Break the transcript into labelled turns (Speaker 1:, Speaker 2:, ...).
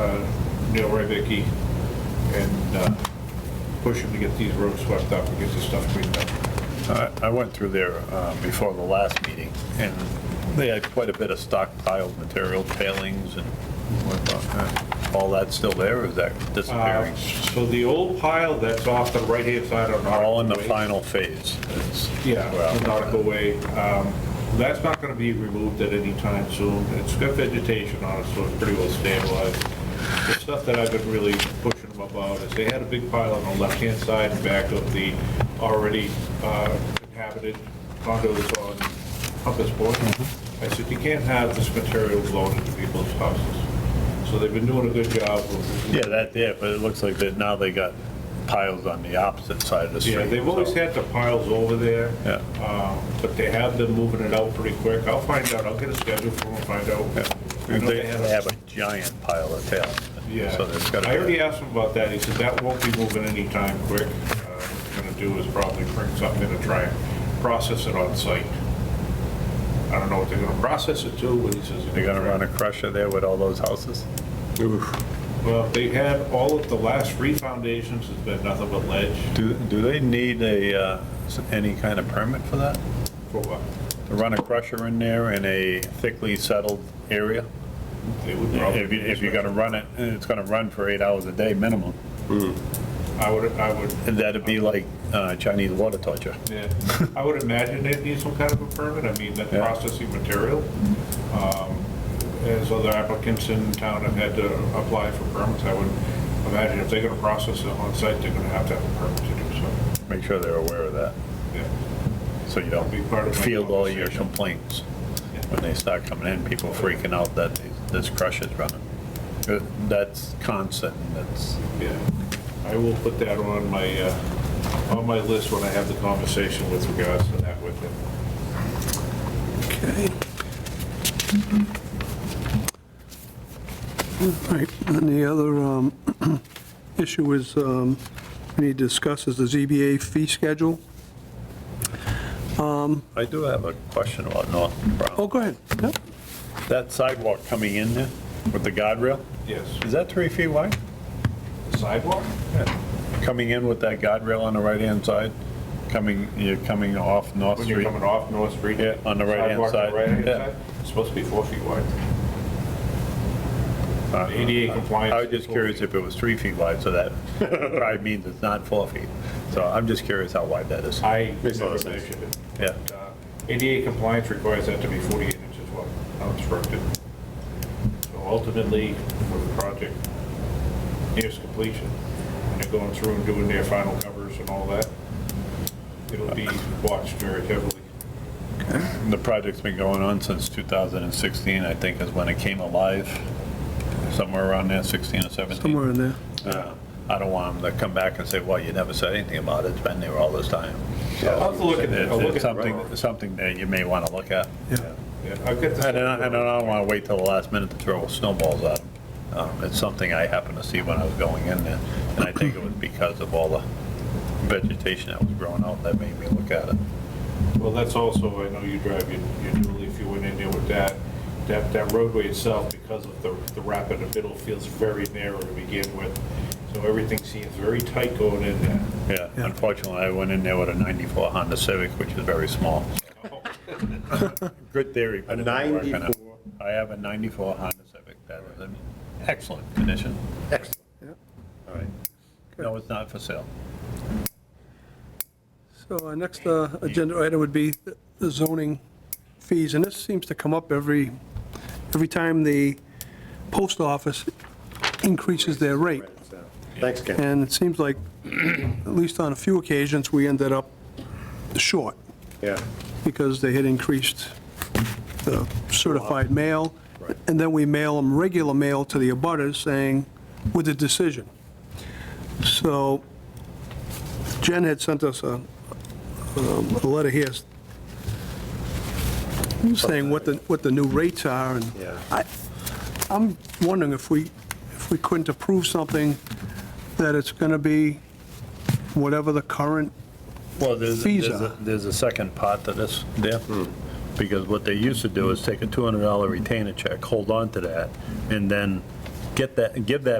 Speaker 1: uh, Neil Rybicki, and uh, push him to get these roads swept up and get this stuff cleaned up.
Speaker 2: I I went through there uh, before the last meeting, and they had quite a bit of stockpiled material, tailings and whatnot. All that still there, or is that disappearing?
Speaker 1: Uh, So the old pile that's off the right-hand side on Nautical
Speaker 2: All in the
Speaker 1: Way-
Speaker 2: final phase. It's-
Speaker 1: Uh, Yeah,
Speaker 2: Well,
Speaker 1: on Nautical Way. Um, That's not going to be removed at any time soon. It's got vegetation on it, so it's pretty well stabilized. The stuff that I've been really pushing them about is they had a big pile on the left-hand side and back of the already uh, inhabited condos on Compass Point.
Speaker 2: Mm-hmm.
Speaker 1: I said, you can't have this material blown into people's houses. So they've been doing a good job of.
Speaker 2: Yeah, that, yeah, but it looks like that now they got piles on the opposite side of the street.
Speaker 1: Yeah, they've always
Speaker 2: so-
Speaker 1: had the piles over there.
Speaker 2: Yeah.
Speaker 1: Um, But they have been moving it out pretty quick. I'll find out, I'll get a schedule for them, and find
Speaker 2: Yeah.
Speaker 1: out. I know
Speaker 2: They
Speaker 1: they had a-
Speaker 2: have a giant pile of tailings. So there's
Speaker 1: Yeah,
Speaker 2: gotta
Speaker 1: I
Speaker 2: be,
Speaker 1: already asked him about that, he said that won't be moving anytime quick. Uh, What he's gonna do is probably bring something to try and process it on site. I don't know what they're gonna process it to, but he says.
Speaker 2: they're gonna run a crusher there with all those houses?
Speaker 1: Well, they had, all of the last three foundations has been nothing but ledge
Speaker 2: Do, do they need a, uh, s- any kind of permit for that?
Speaker 1: for what?
Speaker 2: To run a crusher in there in a thickly settled area?
Speaker 1: They would probably-
Speaker 2: If you, if you're gonna run it, and it's gonna run for eight hours a day minimum,
Speaker 1: Hmm. I would, I would
Speaker 2: and that'd be like uh, Chinese water torture.
Speaker 1: Yeah, I would imagine they'd need some kind of a permit, I mean, that
Speaker 2: Yeah.
Speaker 1: processing material. um, As other applicants in town have had to apply for permits, I would imagine if they're gonna process it on site, they're gonna have to have a permit to do so.
Speaker 2: Make sure they're aware of that,
Speaker 1: Yeah.
Speaker 2: so you
Speaker 1: Be part
Speaker 2: don't
Speaker 1: of my
Speaker 2: field all your
Speaker 1: conversation.
Speaker 2: complaints.
Speaker 1: Yeah.
Speaker 2: When they start coming in, people freaking out that this crusher's running. Uh, That's constant, that's,
Speaker 1: Yeah, I will put that on my, uh, on my list when I have the conversation with regards to that with him.
Speaker 3: Okay. All right, and the other um, issue is, um, we need to discuss is the ZBA fee schedule.
Speaker 2: I do have a question about North Brown.
Speaker 3: Oh, go ahead. Yep.
Speaker 2: That sidewalk coming in there with the guardrail,
Speaker 1: Yes,
Speaker 2: is that three feet wide?
Speaker 1: sidewalk?
Speaker 2: Coming in with that guardrail on the right-hand side, coming, you're coming off North
Speaker 1: When you're
Speaker 2: Street?
Speaker 1: coming off North Street?
Speaker 2: Yeah, on the right-hand
Speaker 1: sidewalk on the
Speaker 2: side.
Speaker 1: right-hand
Speaker 2: Yeah.
Speaker 1: side, It's supposed to be four feet wide.
Speaker 2: Uh,
Speaker 1: ADA compliance.
Speaker 2: I was just curious if it was three feet wide, so that probably means it's not four feet. So I'm just curious how wide that is.
Speaker 1: I
Speaker 4: Makes a lot
Speaker 1: never
Speaker 4: of sense.
Speaker 1: measured it.
Speaker 2: Yeah,
Speaker 1: Uh, ADA compliance requires that to be 48 inches wide, obstructed. So ultimately, when the project nears completion, and they're going through and doing their final covers and all that, it'll be watched very heavily.
Speaker 2: the project's been going on since 2016, I think is when it came alive, somewhere around there, 16 or 17.
Speaker 3: Somewhere in there.
Speaker 2: Uh, I don't want them to come back and say, well, you never said anything about it, it's been there all this time. So
Speaker 1: I'll have to look at it. I'll look at
Speaker 2: It's
Speaker 1: it.
Speaker 2: something, something that you may want to look at.
Speaker 3: Yeah.
Speaker 1: Yeah, I've got this.
Speaker 2: And I and I don't want to wait till the last minute to throw snowballs at them. Um, It's something I happened to see when I was going in there, and I think it was because of all the vegetation that was growing out that made me look at it.
Speaker 1: Well, that's also, I know you drive your your new leaf, you went in there with that, that, that roadway itself, because of the, the rapid, the middle feels very narrow to begin with. So everything seems very tight going in there.
Speaker 2: Yeah, unfortunately, I went in there with a 94 Honda Civic, which is very small. Good theory. but
Speaker 4: A
Speaker 2: it didn't work on it.
Speaker 4: 94.
Speaker 2: I have a 94 Honda Civic that is in excellent condition.
Speaker 4: Excellent.
Speaker 2: All right. No, it's not for sale.
Speaker 3: So our next uh, agenda item would be the zoning fees, and this seems to come up every, every time the post office increases their rate.
Speaker 4: Thanks, Ken.
Speaker 3: And it seems like, at least on a few occasions, we ended up short
Speaker 4: Yeah,
Speaker 3: because they had increased the certified mail.
Speaker 4: Right.
Speaker 3: And then we mail them regular mail to the abutters saying, with a decision. So Jen had sent us a, um, a letter here saying what the, what the new rates are and
Speaker 4: Yeah.
Speaker 3: I, I'm wondering if we, if we couldn't approve something that it's going to be whatever the current,
Speaker 2: Well, there's,
Speaker 3: Fees
Speaker 2: there's a-
Speaker 3: are.
Speaker 2: there's a second part to this, there, because what they used to do is take a $200 retainer check, hold on to that, and then get that, give that